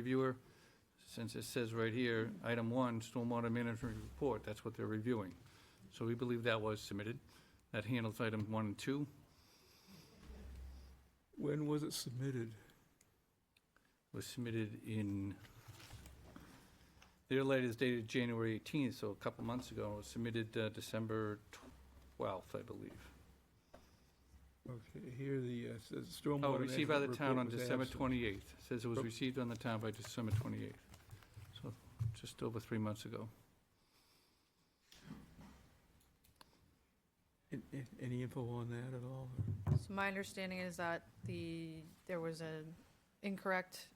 reviewer, since it says right here, item one, stormwater management report, that's what they're reviewing. So we believe that was submitted. That handles item one and two. When was it submitted? Was submitted in, their letter is dated January 18th, so a couple months ago. It was submitted uh, December 12th, I believe. Okay, here the, uh, says stormwater. Oh, received by the management town on report was December absent. 28th. Says it was Oop. received on the town by December 28th. So just over three months ago. An- an- Any info on that at all? So my understanding is that the, there was an incorrect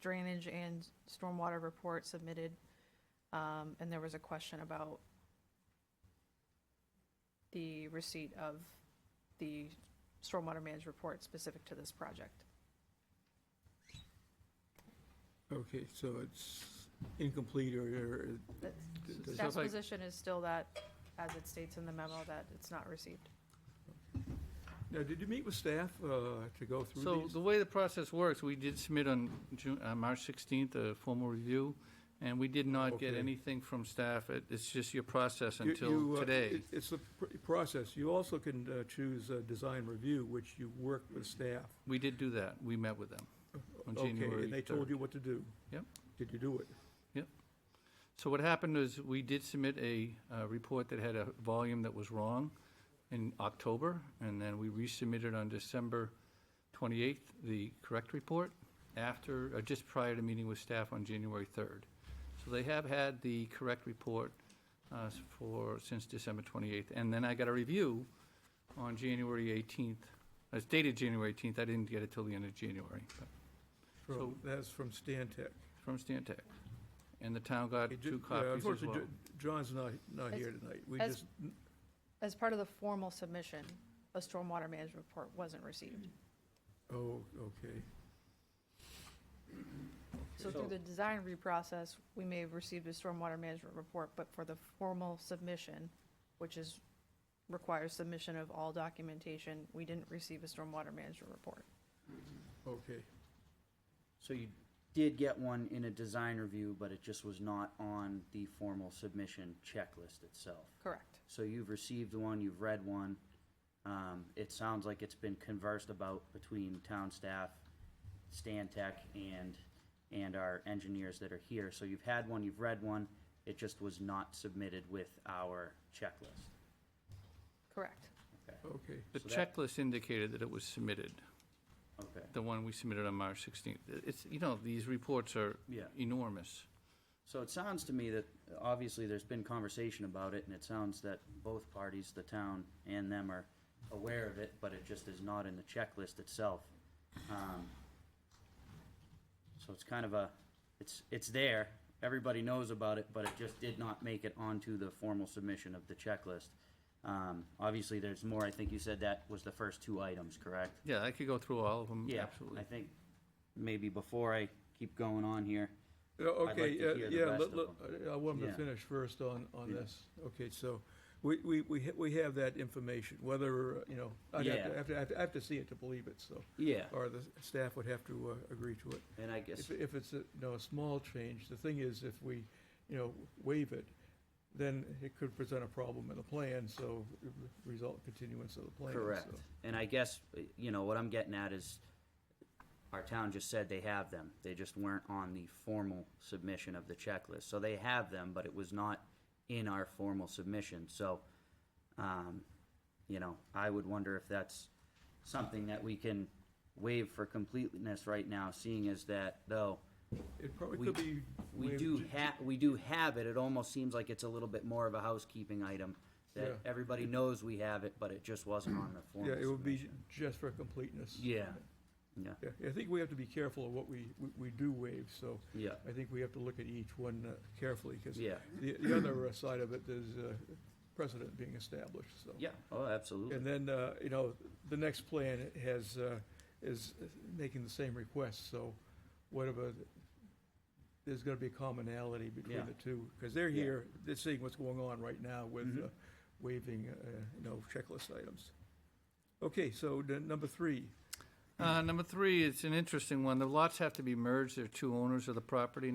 drainage and stormwater report submitted, um, and there was a question about the receipt of the stormwater management report specific to this project. Okay, so it's incomplete or, or- uh, That's- d- does- that- Staff's position is still that, as it states in the memo, that it's not received. now, did you meet with staff, uh, to go So through the these? way the process works, we did submit on June, uh, March 16th, a formal review, and we did not get Okay. anything from staff. It- It's just your process You- until you, uh, today. it- It's the pr- process. You also can, uh, choose, uh, design review, which you worked with staff. We did do that. We met with them. On Okay, January and they third. told you what to do? Yep. Did you do it? So what happened is, we did submit a uh, report that had a volume that was wrong in October, and then we resubmitted on December 28th the correct report after, or just prior to meeting with staff on January 3rd. So they have had the correct report uh, s- for, since December 28th. And then I got a review on January 18th. It's dated January 18th. I didn't get it till the end of January, but From, So- that's from Stan Tech. from Stan Tech. And the town got Hey, Ju- two yeah, copies as well. unfortunately, Ju- John's not, not As- here tonight. We as- just, As part of the formal submission, a stormwater management report wasn't received. oh, okay. So through the design review process, we may have received a stormwater management report, but for the formal submission, which is, requires submission of all documentation, we didn't receive a stormwater management report. Okay, So you did get one in a design review, but it just was not on the formal submission checklist itself. Correct. So you've received one, you've read one. Um, it sounds like it's been conversed about between town staff, Stan Tech, and, and our engineers that are here. So you've had one, you've read one, it just was not submitted with our checklist. Correct. Okay, okay. The So that- checklist indicated that it was submitted, okay. the one we submitted on March 16th. It's, you know, these reports are Yeah. enormous. So it sounds to me that, obviously, there's been conversation about it, and it sounds that both parties, the town and them, are aware of it, but it just is not in the checklist itself. Um, So it's kind of a, it's, it's there, everybody knows about it, but it just did not make it onto the formal submission of the checklist. Um, Obviously, there's more, I think you said that was the first two items, correct? Yeah, I could go through all of them, Yeah, I absolutely. think, maybe before I keep going on here, Yeah, Uh, Okay, like to yeah, hear the yeah, rest let- of let- uh, I I want him to Yeah. finish first on, on Yeah. this. Okay, so we, we, we ha- we have that information, whether, uh, you know, I'd have to- Yeah. have to, have to, I have to see it to believe it, so. yeah, Or the staff would have to uh, agree to it. and I guess. If, if it's, a you know, a small change, the thing is, if we, you know, waive it, then it could present a problem in the plan, so it would result continuance of the plan. so. Correct. And I guess, you know, what I'm getting at is, our town just said they have them. They just weren't on the formal submission of the checklist. So they have them, but it was not in our formal submission. So, um, you know, I would wonder if that's something that we can waive for completeness right now, seeing as that, though, It probably We- could be. we waived do ju- ha, we do have it, it almost seems like it's a little bit more of a housekeeping item, Yeah. that everybody knows we have it, but it just wasn't on the formal Yeah, submission. it would be just for completeness. Yeah, yeah, Yeah, I think we have to be careful of what we, we- we do waive, so yeah, I think we have to look at each one uh, carefully, because yeah, the, the other uh, side of it, there's uh, precedent being established, so. yeah, oh, absolutely. And then, uh, you know, the next plan has, uh, is making the same request, so whatever, there's gonna be a commonality between Yeah. the two, because they're Yeah. here, they're seeing what's going on right now with Mhm. uh, waiving, uh, you know, checklist items. Okay, so the number three. Uh, number three, it's an interesting one. The lots have to be merged. There are two owners of the property